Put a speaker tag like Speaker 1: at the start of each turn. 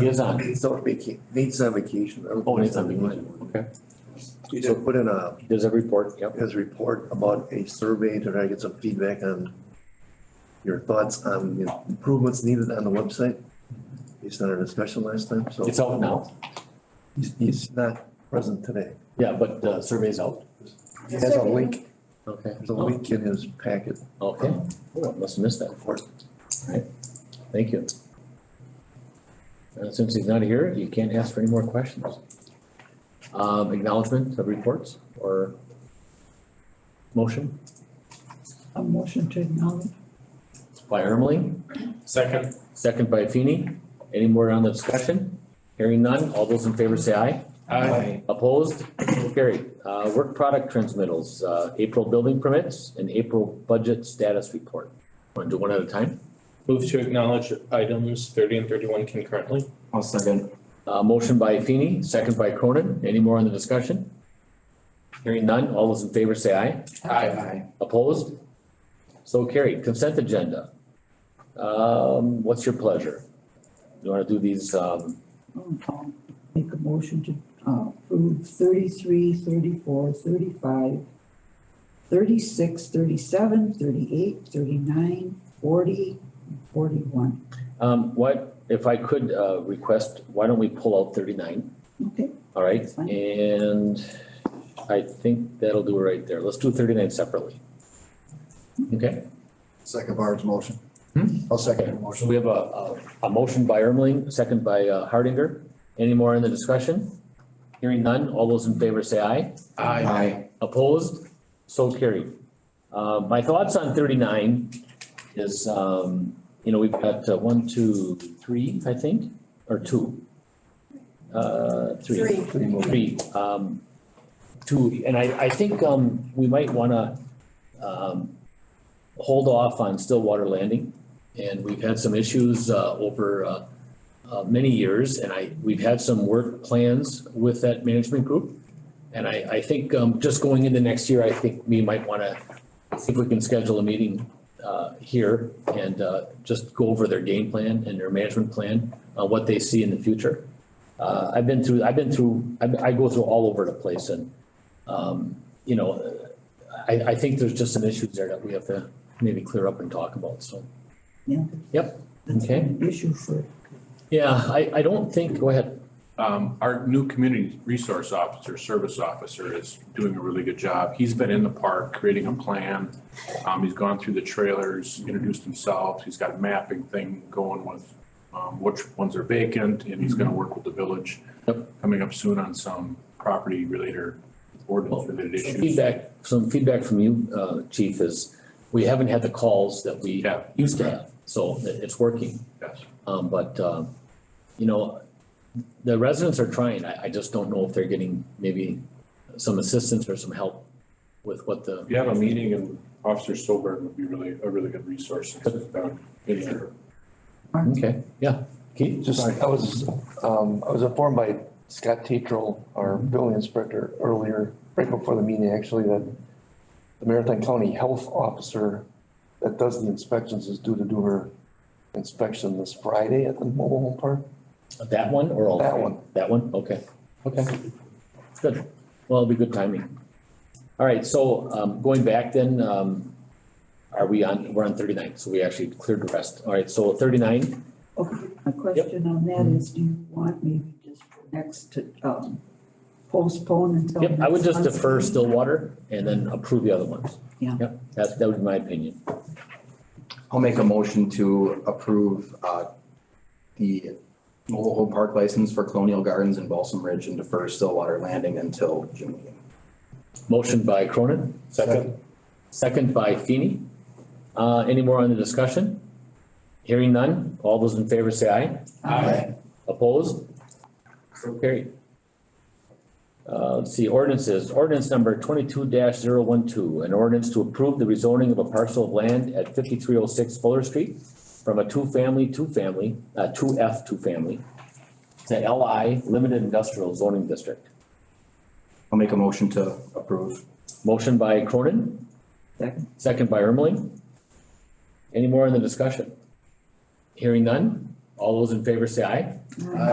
Speaker 1: He is on,
Speaker 2: He's on vaca, he's on vacation.
Speaker 1: oh, he's on vacation, okay.
Speaker 2: So put in a,
Speaker 1: He does a report, yep.
Speaker 2: his report about a survey to try to get some feedback on your thoughts on the improvements needed on the website. He's not in a special last time, so
Speaker 1: It's out now,
Speaker 2: he's, he's not present today.
Speaker 1: yeah, but the survey's out.
Speaker 2: He has a link,
Speaker 1: Okay.
Speaker 2: there's a link in his packet
Speaker 1: Okay, oh, I must have missed that,
Speaker 2: for it.
Speaker 1: thank you. And since he's not here, you can't ask for any more questions. Um, acknowledgement of reports or motion
Speaker 3: A motion to acknowledge.
Speaker 1: by Ermeling,
Speaker 4: Second.
Speaker 1: second by Feeny. Any more on the discussion? Hearing none, all those in favor say aye.
Speaker 4: Aye.
Speaker 1: Opposed? So Carried. Uh, work product transmittals, uh, April building permits and April budget status report. Want to do one at a time?
Speaker 4: Move to acknowledge items thirty and thirty-one concurrently.
Speaker 5: I'll second.
Speaker 1: Uh, motion by Feeny, second by Cronin. Any more on the discussion? Hearing none, all those in favor say aye.
Speaker 5: Aye.
Speaker 1: Opposed? So carried. Consent agenda. Um, what's your pleasure? You wanna do these, um,
Speaker 3: I'll Make a motion to uh, approve thirty-three, thirty-four, thirty-five, thirty-six, thirty-seven, thirty-eight, thirty-nine, forty, and forty-one.
Speaker 1: um, what, if I could, uh, request, why don't we pull out thirty-nine?
Speaker 3: Okay,
Speaker 1: All right,
Speaker 3: That's fine.
Speaker 1: and I think that'll do it right there. Let's do thirty-nine separately. Okay,
Speaker 6: Second Barb's motion.
Speaker 1: Hmm?
Speaker 6: I'll second your
Speaker 1: so
Speaker 6: motion.
Speaker 1: we have a, a, a motion by Ermeling, second by uh, Hardinger. Any more in the discussion? Hearing none, all those in favor say aye.
Speaker 4: Aye.
Speaker 1: Opposed? So carried. Uh, my thoughts on thirty-nine is, um, you know, we've got uh, one, two, three, I think, or two. Uh,
Speaker 7: Three.
Speaker 1: three, um, two, and I, I think, um, we might wanna, um, hold off on Stillwater Landing. And we've had some issues, uh, over, uh, uh, many years, and I, we've had some work plans with that management group. And I, I think, um, just going into next year, I think we might wanna see if we can schedule a meeting, uh, here and, uh, just go over their game plan and their management plan, uh, what they see in the future. Uh, I've been through, I've been through, I, I go through all over the place and, um, you know, I, I think there's just some issues there that we have to maybe clear up and talk about, so.
Speaker 3: yeah.
Speaker 1: Yep,
Speaker 3: That's
Speaker 1: okay.
Speaker 3: an Issue for,
Speaker 1: Yeah, I, I don't think, go ahead.
Speaker 8: Um, our new community resource officer, service officer is doing a really good job. He's been in the park creating a plan. Um, he's gone through the trailers, introduced himself. He's got a mapping thing going with, um, which ones are vacant and he's gonna work with the village.
Speaker 1: Yep.
Speaker 8: Coming up soon on some property related, ordinance related
Speaker 1: Some
Speaker 8: issues.
Speaker 1: Feedback, some feedback from you, uh, chief, is we haven't had the calls that we
Speaker 8: Yeah.
Speaker 1: used to have, so it, it's working.
Speaker 8: Yes.
Speaker 1: Um, but, um, you know, the residents are trying, I, I just don't know if they're getting maybe some assistance or some help with what the.
Speaker 8: If you have a meeting and Officer Stolberg would be really, a really good resource. He's been in there.
Speaker 1: Okay, yeah, Keith?
Speaker 2: Just, I was, um, I was informed by Scott Tetral, our building inspector, earlier, right before the meeting, actually, that the Marathon County Health Officer that does the inspections is due to do her inspection this Friday at the mobile home park.
Speaker 1: That one or all?
Speaker 6: That
Speaker 1: three?
Speaker 6: one.
Speaker 1: That one, okay, okay. Good, well, it'll be good timing. All right, so um going back then, um are we on, we're on thirty-nine, so we actually cleared the rest. All right, so thirty-nine,
Speaker 3: okay, my question on that is, do you want maybe just for next to um, postpone until?
Speaker 1: yep, I would
Speaker 3: next
Speaker 1: just
Speaker 3: month's
Speaker 1: defer
Speaker 3: meeting?
Speaker 1: Stillwater and then approve the other ones.
Speaker 3: Yeah.
Speaker 1: Yep, that that would be my opinion.
Speaker 5: I'll make a motion to approve, uh, the mobile home park license for Colonial Gardens and Balsam Ridge and defer Stillwater Landing until June meeting.
Speaker 1: Motion by Cronin,
Speaker 4: Second.
Speaker 1: second by Feeny. Uh any more on the discussion? Hearing none, all those in favor say aye.
Speaker 4: Aye.
Speaker 1: Opposed? So carried. Uh, let's see, ordinances, ordinance number twenty-two 12 an ordinance to approve the rezoning of a parcel of land at fifty-three oh six Fuller Street from a two-family, two-family, uh, two F two-family to LI Limited Industrial Zoning District.
Speaker 5: I'll make a motion to approve.
Speaker 1: Motion by Cronin,
Speaker 3: Second.
Speaker 1: second by Ermeling. Any more in the discussion? Hearing none, all those in favor say aye.
Speaker 3: All right.